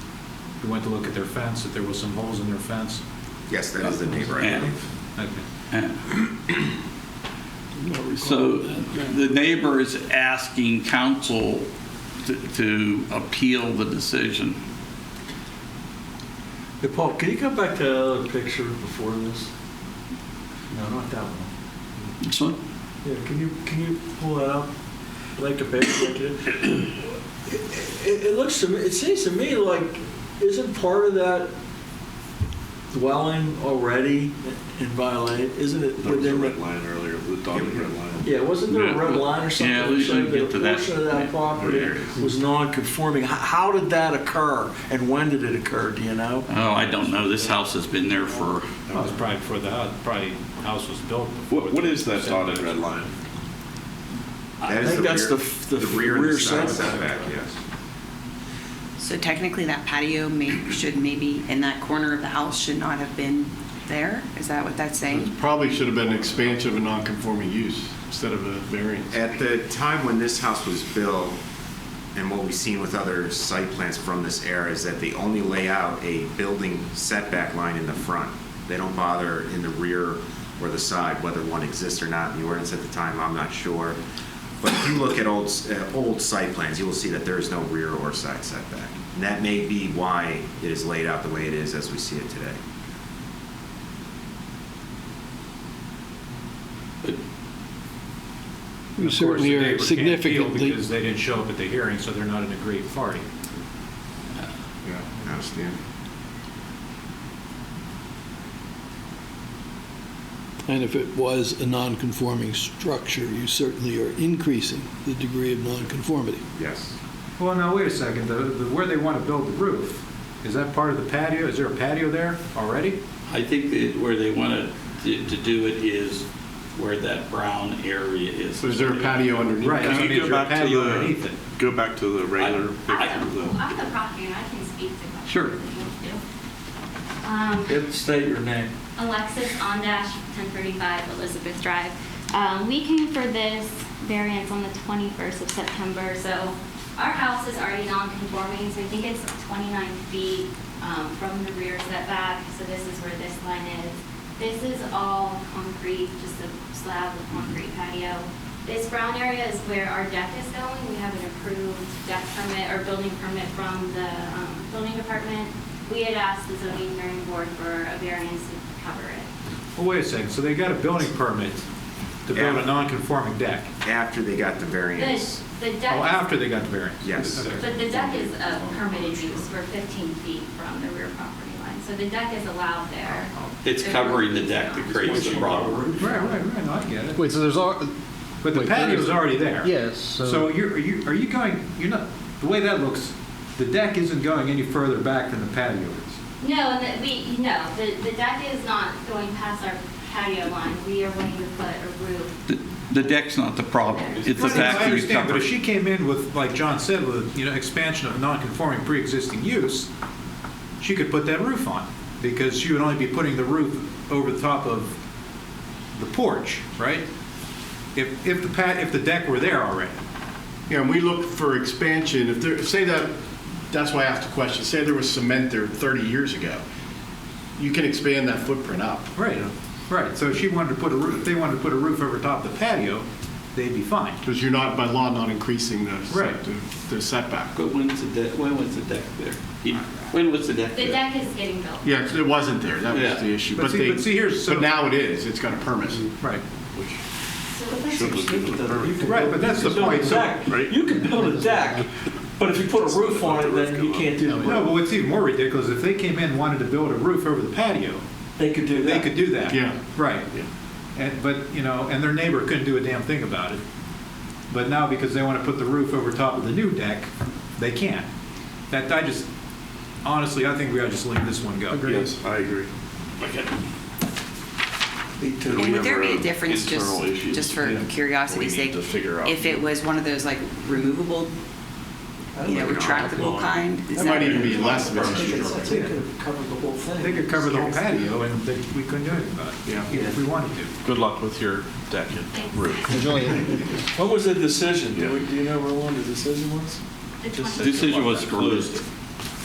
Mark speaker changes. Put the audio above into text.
Speaker 1: you went to look at their fence, that there was some holes in their fence?
Speaker 2: Yes, that is the neighbor, I
Speaker 3: Yeah.
Speaker 2: believe.
Speaker 1: Okay.
Speaker 3: So the neighbor is asking council to- to appeal the decision.
Speaker 4: Hey, Paul, can you come back to that other picture before this? No, not that one.
Speaker 3: So
Speaker 4: Yeah, can you, can you pull that up? I'd Like the picture, like it. It- It, it looks to me, it seems to me like, isn't part of that dwelling already in violation? Isn't it
Speaker 5: There was a
Speaker 4: within,
Speaker 5: red
Speaker 4: the-
Speaker 5: line earlier, the dotted red line.
Speaker 4: yeah, wasn't there a red
Speaker 3: Yeah.
Speaker 4: line or something?
Speaker 3: Yeah,
Speaker 4: that
Speaker 3: we
Speaker 4: showed
Speaker 3: should get
Speaker 4: a
Speaker 3: to that.
Speaker 4: Portion of
Speaker 3: Yeah.
Speaker 4: that property
Speaker 5: There it is.
Speaker 4: was non-conforming. H- How did that occur and when did it occur, do you know?
Speaker 3: Oh, I don't know. This house has been there for,
Speaker 1: That was probably before the house, probably house was built. before
Speaker 5: What, what is that
Speaker 1: the-
Speaker 5: dotted red line?
Speaker 2: That
Speaker 4: I
Speaker 2: is
Speaker 4: think that's
Speaker 2: rear-
Speaker 4: the f- the
Speaker 2: The rear and
Speaker 4: rear
Speaker 2: the side
Speaker 4: setback.
Speaker 2: setback, yes.
Speaker 6: So technically, that patio may, should maybe, in that corner of the house, should not have been there? Is that what that's saying?
Speaker 7: It probably should have been an expansion of a non-conforming use instead of a variance.
Speaker 2: At the time when this house was built, and what we've seen with other site plans from this era, is that they only lay out a building setback line in the front. They don't bother in the rear or the side, whether one exists or not. The ordinance at the time, I'm not sure. But if you look at old, s- uh, old site plans, you will see that there is no rear or side setback. And that may be why it is laid out the way it is as we see it today.
Speaker 1: And of course,
Speaker 8: Certainly
Speaker 1: the
Speaker 8: are
Speaker 1: neighbor can't appeal
Speaker 8: significantly-
Speaker 1: Because they didn't show up at the hearing, so they're not an aggrieved party.
Speaker 7: Yeah, I understand.
Speaker 8: And if it was a non-conforming structure, you certainly are increasing the degree of non-conformity.
Speaker 2: Yes.
Speaker 1: Well, now, wait a second, the, the- where they want to build the roof, is that part of the patio? Is there a patio there already?
Speaker 3: I think that where they wanted to to do it is where that brown area is.
Speaker 7: So is there a patio underneath?
Speaker 1: Right.
Speaker 7: that?
Speaker 1: I
Speaker 5: Can
Speaker 1: mean,
Speaker 5: you
Speaker 1: is
Speaker 5: go
Speaker 1: there a
Speaker 5: back to
Speaker 1: patio underneath it?
Speaker 5: the, go back to the
Speaker 3: I-
Speaker 5: regular
Speaker 3: I-
Speaker 5: picture of the-
Speaker 9: I'm the property and I can speak to that.
Speaker 3: Sure.
Speaker 9: Um,
Speaker 4: Yep, State your name.
Speaker 9: Alexis on dash 1035 Elizabeth Drive. Um, We came for this variance on the 21st of September, so our house is already non-conforming, so I think it's 29 feet um, from the rear setback, so this is where this line is. This is all concrete, just a slab of concrete patio. This brown area is where our deck is going. We have an approved deck permit or building permit from the um, building department. We had asked the zoning hearing board for a variance to cover it.
Speaker 1: Well, wait a second, so they got a building permit to build
Speaker 2: Yeah.
Speaker 1: a non-conforming deck?
Speaker 2: After they got the variance.
Speaker 9: The, the
Speaker 1: Oh,
Speaker 9: deck. is-
Speaker 1: after they got the variance?
Speaker 2: Yes.
Speaker 1: Okay.
Speaker 9: But the deck is a permitted use, we're 15 feet from the rear property line, so the deck is allowed there.
Speaker 3: It's covering the deck that creates the problem.
Speaker 1: Right, right, right, no, I get it.
Speaker 10: Wait, so there's all.
Speaker 1: But the
Speaker 10: wait, there
Speaker 1: patio's
Speaker 10: is-
Speaker 1: already there?
Speaker 10: Yes,
Speaker 1: So
Speaker 10: so
Speaker 1: you're, are you, are you going, you're not, the way that looks, the deck isn't going any further back than the patio is.
Speaker 9: No, and the, we, no, the, the deck is not going past our patio line, we are wanting to put a roof.
Speaker 3: The- The deck's not the problem. It's the
Speaker 1: Right,
Speaker 3: fact
Speaker 1: I
Speaker 3: that you
Speaker 1: understand, but
Speaker 3: covered.
Speaker 1: if she came in with, like John said, with, you know, expansion of non-conforming pre-existing use, she could put that roof on, because she would only be putting the roof over the top of the porch, right? If, if the pat, if the deck were there already.
Speaker 7: Yeah, and we look for expansion, if there, say that, that's why I asked the question, say there was cement there 30 years ago, you can expand that footprint up.
Speaker 1: Right, right, so if she wanted to put a roof, if they wanted to put a roof over top of the patio, they'd be fine.
Speaker 7: Because you're not, by law, not increasing the
Speaker 1: Right.
Speaker 7: set- the- the setback.
Speaker 3: But when's the deck, when was the deck there? You- When was the deck
Speaker 9: The
Speaker 3: there?
Speaker 9: deck is getting built.
Speaker 7: Yeah, 'cause it wasn't there, that
Speaker 3: Yeah.
Speaker 7: was the issue.
Speaker 1: But see-
Speaker 7: they-
Speaker 1: but see, here's- so-
Speaker 7: But now it is, it's got a permit.
Speaker 1: Right.
Speaker 9: So
Speaker 5: Should have been the permit.
Speaker 1: Right, but that's the point, so.
Speaker 5: right?
Speaker 4: You can build a deck, but if you put a roof on it, then you can't do
Speaker 1: No,
Speaker 4: the roof.
Speaker 1: but what's even more ridiculous, if they came in and wanted to build a roof over the patio,
Speaker 4: They could do
Speaker 1: they
Speaker 4: that.
Speaker 1: could do that.
Speaker 7: Yeah.
Speaker 1: Right. And, but, you know, and their neighbor couldn't do a damn thing about it. But now because they want to put the roof over top of the new deck, they can. That, I just, honestly, I think we ought to just leave this one go.
Speaker 5: Yes, I agree.
Speaker 4: Me too.
Speaker 5: we
Speaker 6: And would there
Speaker 5: have
Speaker 6: be a
Speaker 5: our
Speaker 6: difference, just,
Speaker 5: internal issues,
Speaker 6: just for
Speaker 1: yeah,
Speaker 5: we
Speaker 6: curiosity's
Speaker 5: need
Speaker 6: sake,
Speaker 5: to figure out.
Speaker 6: if it was one of those like removable,
Speaker 4: I don't
Speaker 6: you know,
Speaker 4: know.
Speaker 6: retractable kind? is
Speaker 7: That might even be less of
Speaker 4: I
Speaker 7: an
Speaker 4: think
Speaker 7: issue.
Speaker 4: it's- I think it could have covered the whole thing.
Speaker 1: They could cover the whole patio and they- we couldn't do anything about
Speaker 7: Yeah.
Speaker 1: it, if we wanted to.
Speaker 5: Good luck with your deck and roof.
Speaker 10: there's only,
Speaker 4: What was the decision? Do
Speaker 5: Yeah.
Speaker 4: we- do you know how long the decision was?
Speaker 9: The
Speaker 3: Decision was closed.